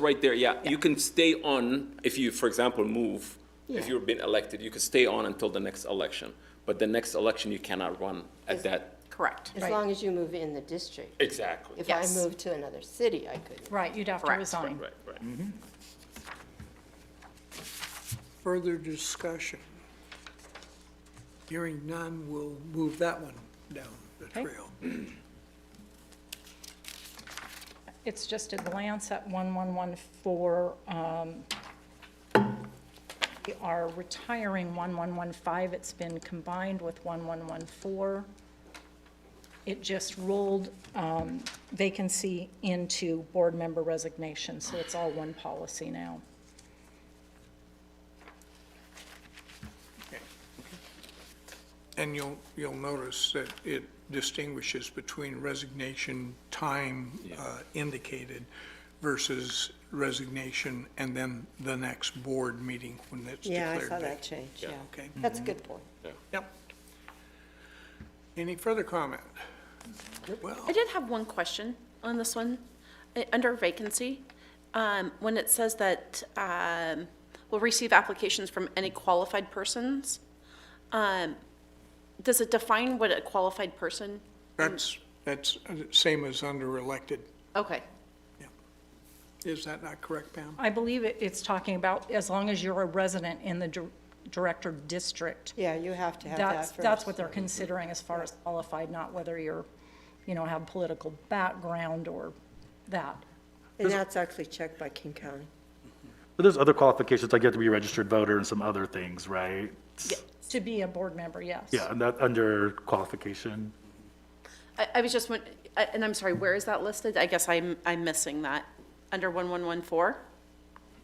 Right there, yeah. You can stay on, if you, for example, move, if Yeah. you've been elected, you can stay on until the next election. But the next election, you cannot run at Is- that. Correct. As Right. long as you move in the district. Exactly. If I Yes. moved to another city, I couldn't. Right, you'd have to Correct. resign. Right, right. Further discussion? Hearing none, we'll move that one down the Okay. trail. It's just a glance at 1114, um, we are retiring 1115, it's been combined with 1114. It just rolled um, vacancy into board member resignation, so it's all one policy now. And you'll, you'll notice that it distinguishes between resignation time uh, indicated versus resignation and then the next board meeting when it's Yeah, declared. I saw that vacant. change, yeah. Mm-hmm. Okay, That's a good point. yep. Any further comment? Well, I did have one question on this one. Uh, Under vacancy, um, when it says that um, we'll receive applications from any qualified persons, um, does it define what a qualified person? that's, that's uh, same as under elected. Okay, Is that not correct, Pam? I believe it- it's talking about as long as you're a resident in the dir- director district, Yeah, you have to have that That's, first. that's what they're considering as far as qualified, not whether you're, you know, have political background or that. And that's actually checked by King County. But there's other qualifications, like you have to be a registered voter and some other things, right? To be a board member, yes. Yeah, and that under qualification. I, I was just, won- I- and I'm sorry, where is that listed? I guess I'm, I'm missing that. Under 1114?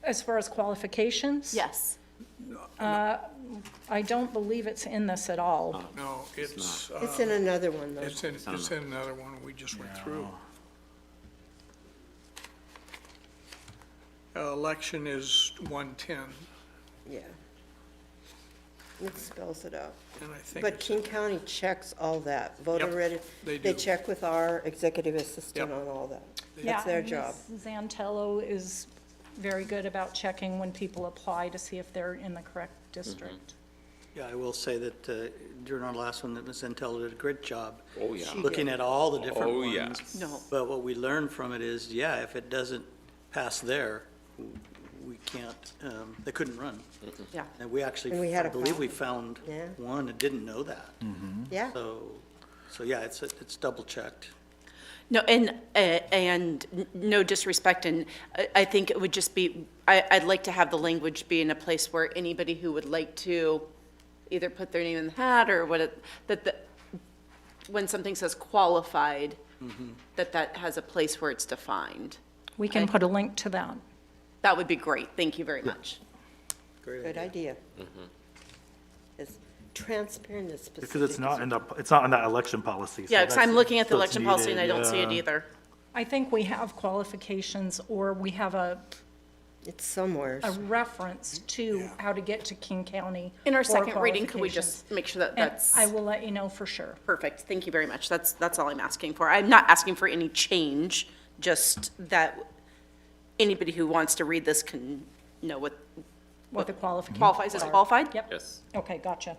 As far as qualifications? Yes. I don't believe it's in this at all. No, it's, uh, It's in another one, though. it's in, it's in another one we just went through. Uh, Election is 110, Yeah. It spells it out. and I think But it's King County checks all that, voter ready. they They do. check with our executive assistant Yep. on all that. Yeah, That's their and job. Ms. Zantello is very good about checking when people apply to see if they're in the correct district. Yeah, I will say that uh, during our last one, that Ms. Intel did a great job. Oh, yeah. She Looking at all the different Oh, ones. yeah. No. But what we learned from it is, yeah, if it doesn't pass there, we can't, um, they couldn't run. Yeah. And we actually, And we had I a believe we found problem. Yeah. one that didn't know that. Mm. Mm-hmm. Yeah. So, so yeah, it's, it's double checked. No, and, uh, and n- no disrespect, and I, I think it would just be, I, I'd like to have the language be in a place where anybody who would like to either put their name in the hat or what, it- that the, when something says qualified, Mm-hmm. that that has a place where it's defined. We can put a link to that. That would be great. Thank you very much. Great Good idea. It's transparent and specific. Because it's not in the, it's not in that election policy. so Yeah, because I'm that's- looking at the so it's election policy and I don't see it needed, either. I think we have qualifications or we have a, It's somewhere. a reference to how to get to King County. In our for second reading, could we qualifications. just make sure that And that's? I will let you know for sure. Perfect, thank you very much. That's, that's all I'm asking for. I'm not asking for any change, just that anybody who wants to read this can know what What the qualifications qualifies as are. qualified? Yep. Yes. Okay, gotcha.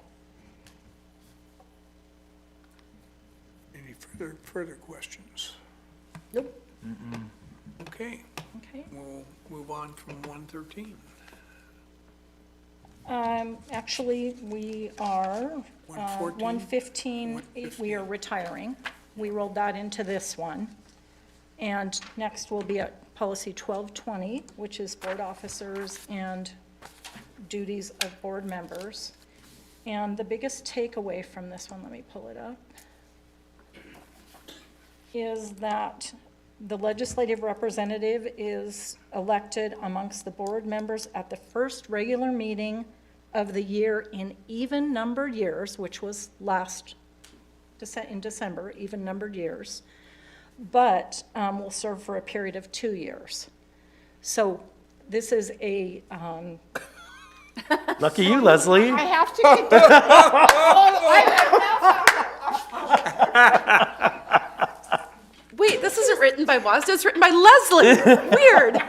any further, further questions? Nope. Okay, Okay. we'll move on from 113. Um, actually, we are, uh, 114? 115, we are retiring. We rolled that into this one. And next will be at policy 1220, which is board officers and duties of board members. And the biggest takeaway from this one, let me pull it up, is that the legislative representative is elected amongst the board members at the first regular meeting of the year in even-numbered years, which was last, Dece- in December, even-numbered years, but um, will serve for a period of two years. So this is a, um, uh, Lucky you, Leslie. I have to get those. Wait, this isn't written by WASDA, it's written by Leslie. Weird.